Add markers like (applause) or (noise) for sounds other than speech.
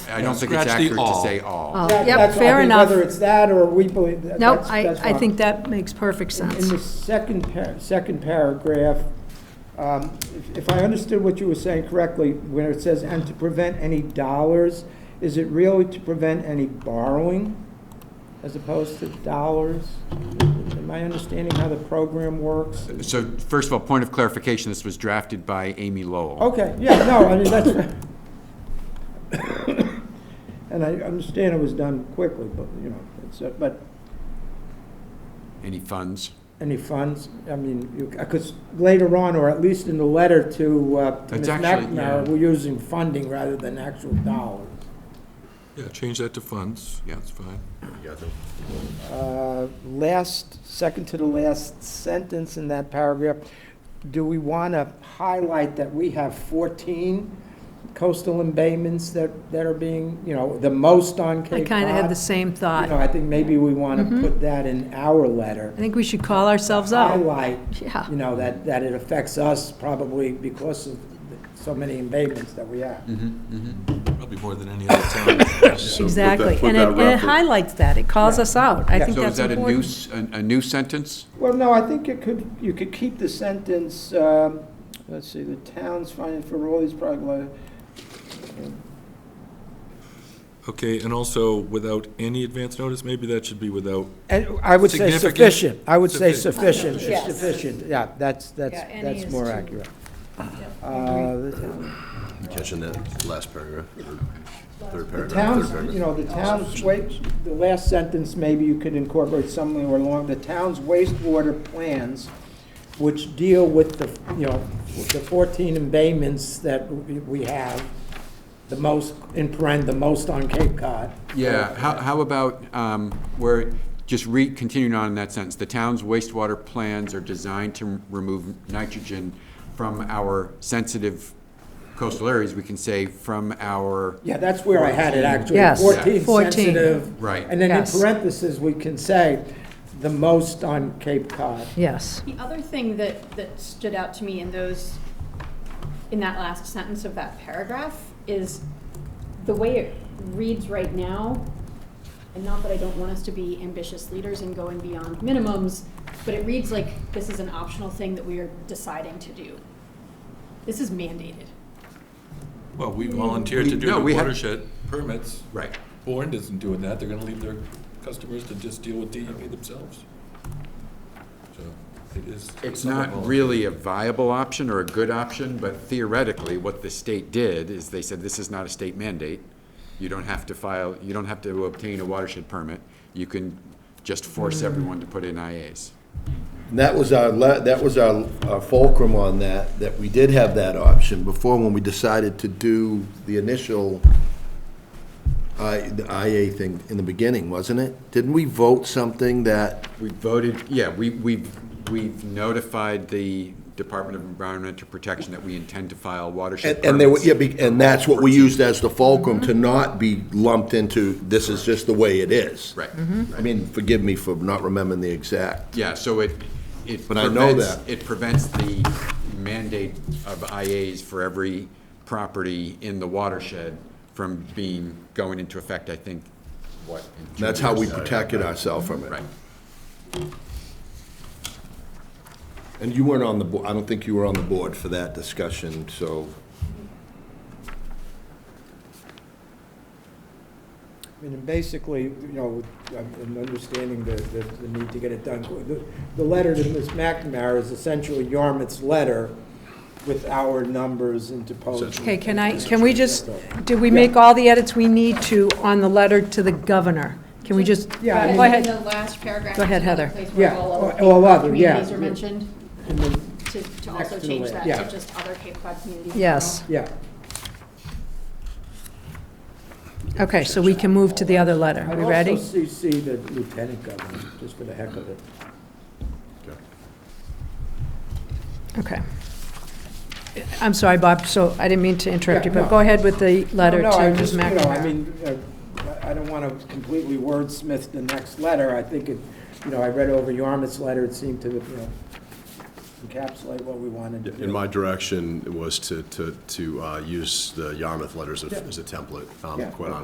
I don't think it's Scratch the accurate to all. say all. Oh, That- Yep, that's- I fair mean, enough. Whether it's that or we believe that. No, that's- I, that's I fine. think that makes perfect In- sense. In the second, par- second paragraph, um, if- if I understood what you were saying correctly, when it says, "and to prevent any dollars," is it really to prevent any borrowing as opposed to dollars? Am I understanding how the program works? So first of all, point of clarification, this was drafted by Amy Oh. Lowell. Okay, yeah, no, I mean, that's, (coughs) and I understand it was done quickly, but, you know, it's, uh, but Any funds? Any funds? I mean, because later on, or at least in the letter to uh, to Ms. It's actually- McNamara, yeah. we're using funding rather than actual dollars. Yeah, change that to funds. Yeah, it's fine. Uh, Last, second to the last sentence in that paragraph, do we want to highlight that we have 14 coastal embayments that that are being, you know, the most on I Cape Cod? kind of had the Mm-hmm. same You know, thought. I think maybe we want to put that in our letter. I think we should call ourselves out. Highlight Yeah. you know, that, that it affects us probably because of the- so many embayments that we have. Probably more than any other town. So put that- Exactly. put And it, that and it refer- highlights that. It calls us out. I Yeah. think So is that's that a new, important. s- a a new sentence? Well, no, I think it could, you could keep the sentence, um, let's see, the town's finding for all these projects. (laughs) Okay, and also without any advance notice, maybe that should be without, And I would say Significant- sufficient, I would say Sufficient. sufficient, Yes. sufficient, yeah, that's, that's, Yeah, E any that's is more too- accurate. Uh, Catching that last paragraph, or third The paragraph, third town's, you paragraph. know, the town's waste, the last sentence, maybe you could incorporate somewhere along, the town's wastewater plans, which deal with the, you know, with the 14 embayments that we we have, the most, in paren, the most on Cape Cod. Yeah, how, how about, um, where, just re, continuing on in that sentence, the town's wastewater plans are designed to remove nitrogen from our sensitive coastal areas, we can say from our, Yeah, that's where I had it, actually. Yes. 14 14. sensitive. Right. And then in Yes. parentheses, we can say, the most on Cape Cod. Yes. The other thing that, that stood out to me in those, in that last sentence of that paragraph is the way it reads right now, and not that I don't want us to be ambitious leaders and going beyond minimums, but it reads like this is an optional thing that we are deciding to do. This is mandated. well, we volunteered to do No, the we had- watershed permits. right. Bourne isn't doing that. They're gonna leave their customers to just deal with DEP themselves. So it is. It's somewhat not volatile. really a viable option or a good option, but theoretically, what the state did is they said, this is not a state mandate. You don't have to file, you don't have to obtain a watershed permit. You can just Hmm. force everyone to put in IAs. And That was our, le- that was our our fulcrum on that, that we did have that option before when we decided to do the initial I, the IA thing in the beginning, wasn't it? Didn't we vote something that, We voted, yeah, we, we've, we've notified the Department of Environmental Protection that we intend to file watershed and permits. and they were, yeah, be- and that's what we used as the fulcrum to not be lumped into, this is just the way it is. Right. I mean, forgive me for not remembering the exact. Yeah, so it, it But I know prevents, that. it prevents the mandate of IAs for every property in the watershed from being, going into effect, I think, what? in two That's how we years? protected ourselves from it. Right. And you weren't on the, bo- I don't think you were on the board for that discussion, so I mean, and basically, you know, I'm I'm understanding the, the, the need to get it done. The, the letter to Ms. McNamara is essentially Yarmouth's letter with our numbers interposed. Okay, can I, can we just, did we make all the edits we need to on the letter to the governor? Can we just, go Yeah, I mean- In ahead. the last paragraph. Go ahead, is another Heather. Place where Yeah, all all- all other other, Cape yeah. Cod communities are mentioned, And then, to, to Next also to the change la- that yeah. to just other Cape Cod communities. in Yes. general. Yeah, Okay, so we can move to the other letter. I'd We ready? also CC the lieutenant governor, just for the heck of it. Okay. I'm sorry, Bob, so I didn't mean to interrupt you, Yeah, but no. go ahead with the letter No, no, I to Ms. just, you know, I McNamara. mean, uh, I I don't want to completely wordsmith the next letter. I think it, you know, I read over Yarmouth's letter, it seemed to, you know, encapsulate what we wanted to do. In my direction was to, to, to uh, use the Yarmouth letters as as a template, um, Yeah. quite honestly.